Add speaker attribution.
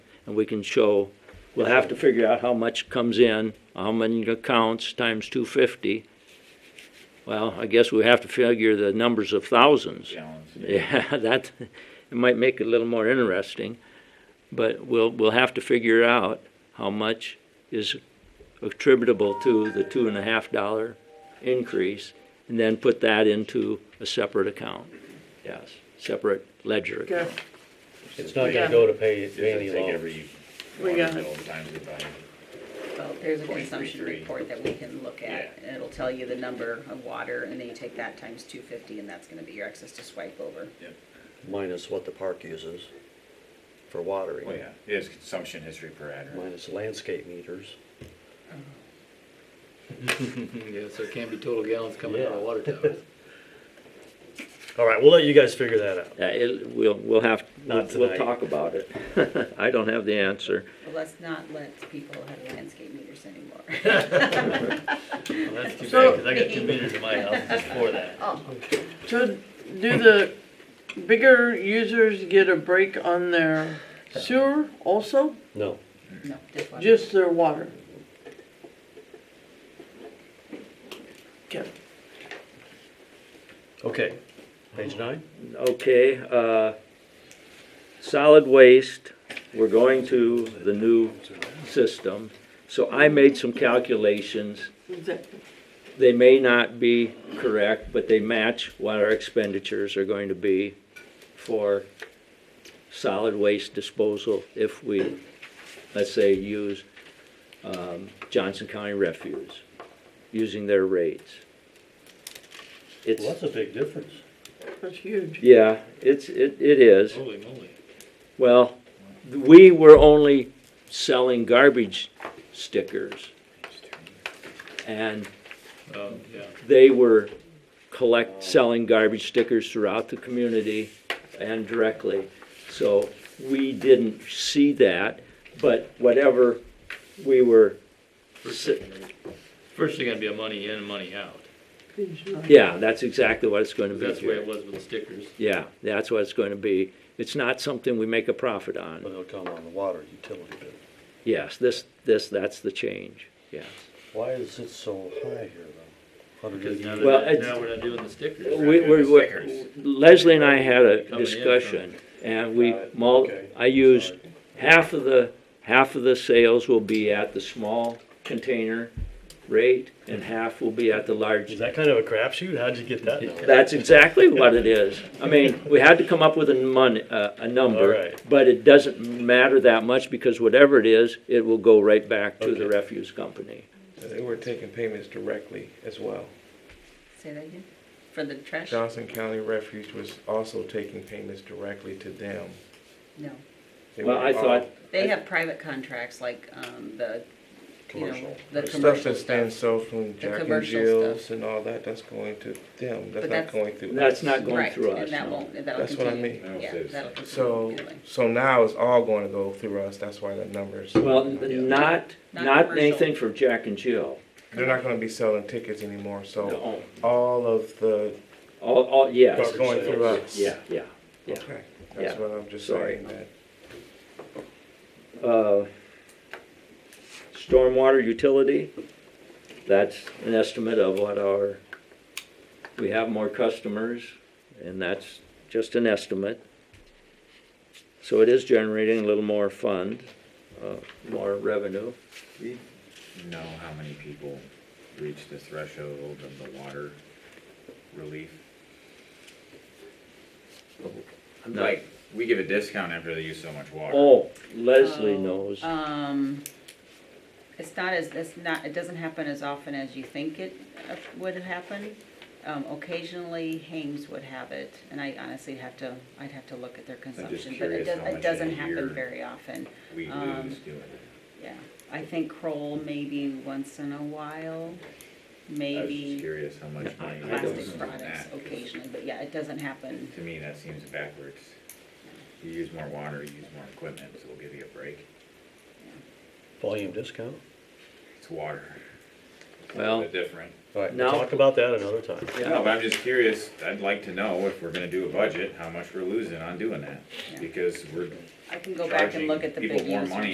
Speaker 1: and we can show, we'll have to figure out how much comes in, how many accounts times two fifty. Well, I guess we have to figure the numbers of thousands.
Speaker 2: gallons.
Speaker 1: Yeah, that, it might make it a little more interesting, but we'll, we'll have to figure out how much is attributable to the two and a half dollar increase, and then put that into a separate account, yes, separate ledger account.
Speaker 3: Okay,
Speaker 4: It's not gonna go to pay, pay any
Speaker 2: It's like
Speaker 4: loans.
Speaker 2: every
Speaker 3: We
Speaker 2: water
Speaker 3: got
Speaker 2: bill times it by,
Speaker 5: Well, there's a
Speaker 2: 23.3.
Speaker 5: consumption report that we can look at,
Speaker 2: Yeah.
Speaker 5: and it'll tell you the number of water, and then you take that times two fifty, and that's gonna be your excess to swipe over.
Speaker 4: Minus what the park uses for
Speaker 6: Oh,
Speaker 2: well,
Speaker 4: watering,
Speaker 2: Oh, yeah, it is consumption history per address.
Speaker 4: minus landscape meters.
Speaker 6: Yeah, so it can't be total gallons coming out of
Speaker 4: Yeah.
Speaker 6: water towers.
Speaker 4: All right, we'll let you guys figure that out.
Speaker 1: Uh, it, we'll, we'll have, we'll
Speaker 4: Not
Speaker 1: we'll
Speaker 4: tonight.
Speaker 1: talk about it. I don't have the answer.
Speaker 5: But let's not let people have landscape meters anymore.
Speaker 6: Well, that's too
Speaker 3: So-
Speaker 6: bad, cause I got two meters in my house just for that.
Speaker 3: so do the bigger users get a break on their sewer also?
Speaker 4: No,
Speaker 5: No, just one.
Speaker 3: Just their water? Okay,
Speaker 4: okay, Uh-huh. page nine?
Speaker 1: Okay, uh, solid waste, we're going to the new system. So I made some calculations.
Speaker 3: exactly.
Speaker 1: They may not be correct, but they match what our expenditures are going to be for solid waste disposal if we, let's say, use um, Johnson County Refuse, using their rates. It's,
Speaker 4: Well, that's a big difference.
Speaker 3: That's huge.
Speaker 1: yeah, it's, it it is.
Speaker 6: Holy moly.
Speaker 1: Well, we were only selling garbage stickers and
Speaker 6: Oh, yeah.
Speaker 1: they were collect, selling garbage stickers throughout the community and directly. So we didn't see that, but whatever we were,
Speaker 6: First thing you're gonna- First thing gonna be a money in and money out.
Speaker 1: yeah, that's exactly what it's gonna
Speaker 6: 'Cause
Speaker 1: be
Speaker 6: That's the way it
Speaker 1: here.
Speaker 6: was with the stickers.
Speaker 1: Yeah, that's what it's gonna be. It's not something we make a profit on.
Speaker 4: But it'll come on the water utility bill.
Speaker 1: Yes, this, this, that's the change, yes.
Speaker 4: Why is it so high here though? Hundred
Speaker 6: Cause
Speaker 4: eighty.
Speaker 6: now
Speaker 1: Well,
Speaker 6: they're,
Speaker 1: it's-
Speaker 6: now we're not doing the stickers.
Speaker 1: We, we, we-
Speaker 2: Stickers.
Speaker 1: Leslie and I had a
Speaker 6: from-
Speaker 1: discussion, and we,
Speaker 4: Got it.
Speaker 1: mul-
Speaker 4: Okay.
Speaker 1: I used,
Speaker 4: Sorry.
Speaker 1: half of the, half of the sales will be at the small container rate, and half will be at the large.
Speaker 4: Is that kind of a crapshoot? How'd you get that number?
Speaker 1: That's exactly what it is. I mean, we had to come up with a mon, a, a
Speaker 4: All
Speaker 1: number,
Speaker 4: right.
Speaker 1: but it doesn't matter that much, because whatever it is, it will go right back to the
Speaker 4: Okay.
Speaker 1: refuse company.
Speaker 7: Uh, They were taking payments directly as well.
Speaker 5: Say that again, for the trash?
Speaker 7: Johnson County Refuge was also taking payments directly to them.
Speaker 5: No,
Speaker 7: They
Speaker 1: Well,
Speaker 7: were
Speaker 1: I
Speaker 7: all-
Speaker 1: thought,
Speaker 5: they have private contracts like, um, the, you know,
Speaker 4: Commercial.
Speaker 5: the
Speaker 7: Stuff
Speaker 5: commercial
Speaker 7: that's being
Speaker 5: stuff.
Speaker 7: sold from Jack and
Speaker 5: commercial
Speaker 7: Jill's and all that, that's going to them, that's
Speaker 5: that's-
Speaker 7: not going through us.
Speaker 1: that's not going
Speaker 5: Right,
Speaker 1: through us,
Speaker 5: and that
Speaker 1: no.
Speaker 5: won't, that'll
Speaker 7: That's what I
Speaker 5: continue.
Speaker 7: mean.
Speaker 2: No,
Speaker 5: Yeah,
Speaker 2: it's-
Speaker 5: that'll continue.
Speaker 7: So,
Speaker 5: anyway.
Speaker 7: so now it's all going to go through us, that's why the numbers.
Speaker 1: well, n- not,
Speaker 5: Not
Speaker 1: not
Speaker 5: commercial.
Speaker 1: anything for Jack and Jill.
Speaker 7: They're not gonna be selling tickets anymore, so
Speaker 1: No.
Speaker 7: all of the,
Speaker 1: All, all, yes,
Speaker 7: it's going through
Speaker 4: sales.
Speaker 7: us.
Speaker 1: yeah, yeah. Yeah.
Speaker 7: Okay, that's
Speaker 1: Yeah.
Speaker 7: what I'm just
Speaker 1: Sorry.
Speaker 7: saying, that
Speaker 1: Uh, Stormwater utility, that's an estimate of what our, we have more customers, and that's just an estimate. So it is generating a little more fund, uh, more revenue.
Speaker 2: We know how many people reach the threshold of the water relief?
Speaker 1: I'm not-
Speaker 2: Like, we give a discount after they use so much water.
Speaker 1: Oh, Leslie
Speaker 5: Oh,
Speaker 1: knows.
Speaker 5: Um, it's not as, it's not, it doesn't happen as often as you think it uh, would happen. Um, occasionally Hames would have it, and I honestly have to, I'd have to look at their consumption, but it
Speaker 2: curious
Speaker 5: does,
Speaker 2: how
Speaker 5: it
Speaker 2: much in a
Speaker 5: doesn't
Speaker 2: year-
Speaker 5: happen very often,
Speaker 2: We
Speaker 5: um,
Speaker 2: lose doing it.
Speaker 5: yeah. I think Kroll maybe once in a while,
Speaker 2: I was just
Speaker 5: maybe
Speaker 2: curious how much
Speaker 1: I-
Speaker 2: money.
Speaker 1: I don't
Speaker 2: goes
Speaker 5: plastic
Speaker 2: into
Speaker 5: products
Speaker 2: that, 'cause
Speaker 5: occasionally, but yeah, it doesn't happen.
Speaker 2: To me, that seems backwards. You use more water, you use more equipment, so we'll give you a break.
Speaker 4: Volume discount?
Speaker 2: It's water. It's a
Speaker 1: Well-
Speaker 2: little bit different.
Speaker 4: All right,
Speaker 1: Now-
Speaker 4: we'll talk about that another time.
Speaker 1: Yeah.
Speaker 2: No, but I'm just curious, I'd like to know if we're gonna do a budget, how much we're losing on doing that, because we're
Speaker 5: I can go back and look at the
Speaker 2: Charging
Speaker 5: big
Speaker 2: people more
Speaker 5: users.
Speaker 2: money